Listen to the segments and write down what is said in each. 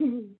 Mhm.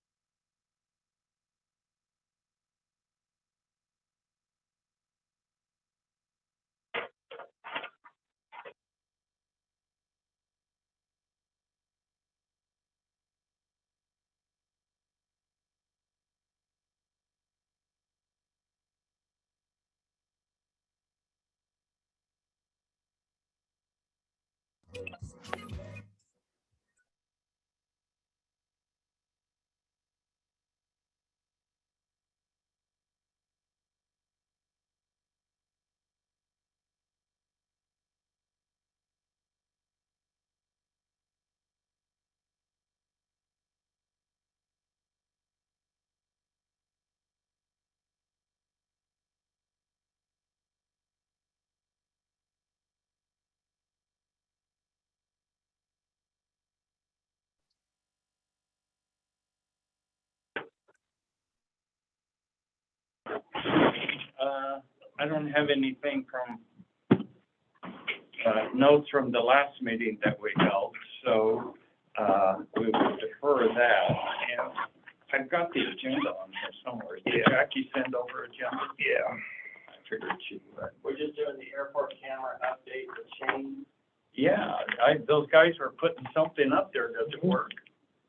Uh, I don't have anything from, uh, notes from the last meeting that we held, so, uh, we will defer that. And I've got the agenda on here somewhere. Did Jackie send over agenda? Yeah. I figured she would. We're just doing the airport camera update with Shane. Yeah, I, those guys were putting something up there, does it work?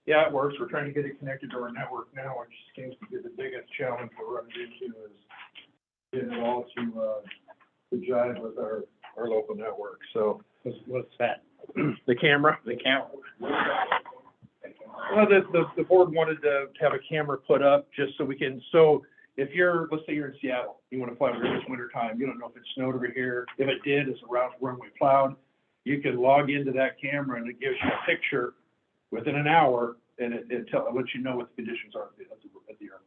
Yeah, it works. We're trying to get it connected to our network now, which seems to be the biggest challenge we're running into is getting it all to, uh, to jive with our, our local network, so. What's, what's that? The camera? The camera, Well, the, the, the board wanted to have a camera put up just so we can, so if you're, let's say you're in Seattle, you wanna fly over here this winter time, you don't know if it snowed over here. If it did, it's a route runway plowed. You can log into that camera and it gives you a picture within an hour and it, it tell, it lets you know what the conditions are at the, at the- at the airport.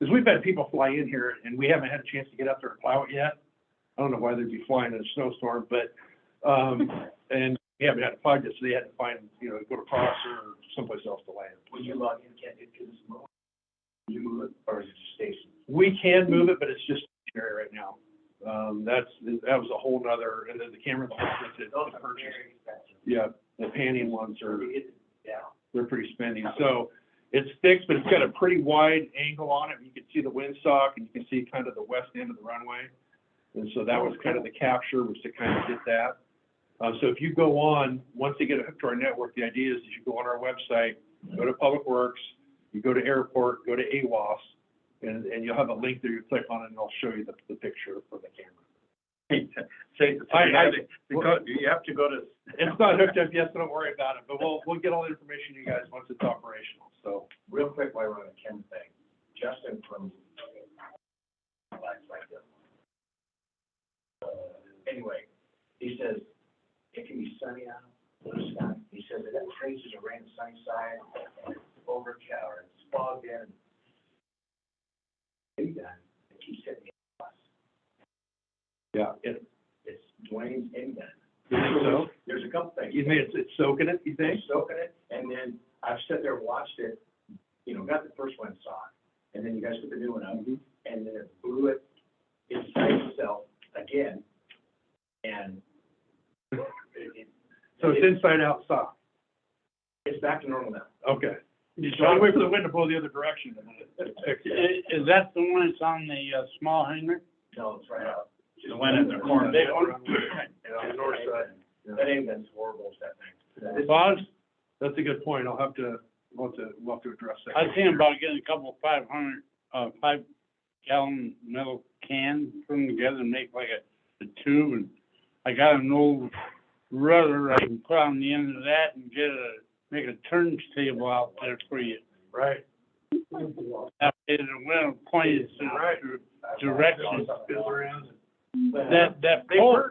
Cause we've had people fly in here and we haven't had a chance to get up there and plow it yet. I don't know why they'd be flying in a snowstorm, but, um, and we haven't had to plug it, so they had to find, you know, go to Fox or someplace else to land. When you log in, can't get to this mode? You move it, or is it station? We can move it, but it's just area right now. Um, that's, that was a whole nother, and then the camera, the whole thing, Those the are purchase. very expensive. Yeah, the panning ones are, Yeah. they're pretty spendy. So it sticks, but it's got a pretty wide angle on it. You can see the windsock and you can see kind of the west end of the runway. And so that was kind of the capture, was to kind of get that. Uh, so if you go on, once they get hooked to our network, the idea is that you go on our website, go to Public Works, you go to Airport, go to AWAS, and, and you'll have a link there you click on it and it'll show you the, the picture from the camera. say, say, I- I- you have to go to. It's not hooked up yet, so don't worry about it, but we'll, we'll get all the information to you guys once it's operational, so. Real quick, while we're on the Kim thing, Justin from, like this. Uh, Anyway, he says, it can be sunny out, blue sky, he says it traces of rain sunny side, overcast, or it's fogged in. He done, it keeps hitting me, Yeah. it's Dwayne's in done. You think so? There's a couple things. You mean it's, it's soaking it, you think? They soaking it, and then I've sat there, watched it, you know, got the first one, saw it, and then you guys put the new one up, Mm-hmm. and then it blew it inside itself again, and it, it, So it's inside out sock, it's back to normal now. okay. You just gotta wait for the wind to blow the other direction and then it fixes it. Is, is that the one that's on the, uh, small hangar? No, it's right out. The one in the corner. They own- On the north side. That ain't been horrible, that thing. Well, I- that's a good point, I'll have to, we'll have to, we'll have to address that. I was thinking about getting a couple five hundred, uh, five gallon metal cans, put them together and make like a, a tube and I got an old rudder I can put on the end of that and get a, make a turntable out there for you. Right. That way the wind points in the direction. Fiddle around. That, that pole,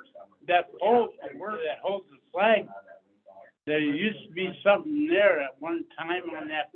that pole, that holds the flag, there used to be something there at one time on that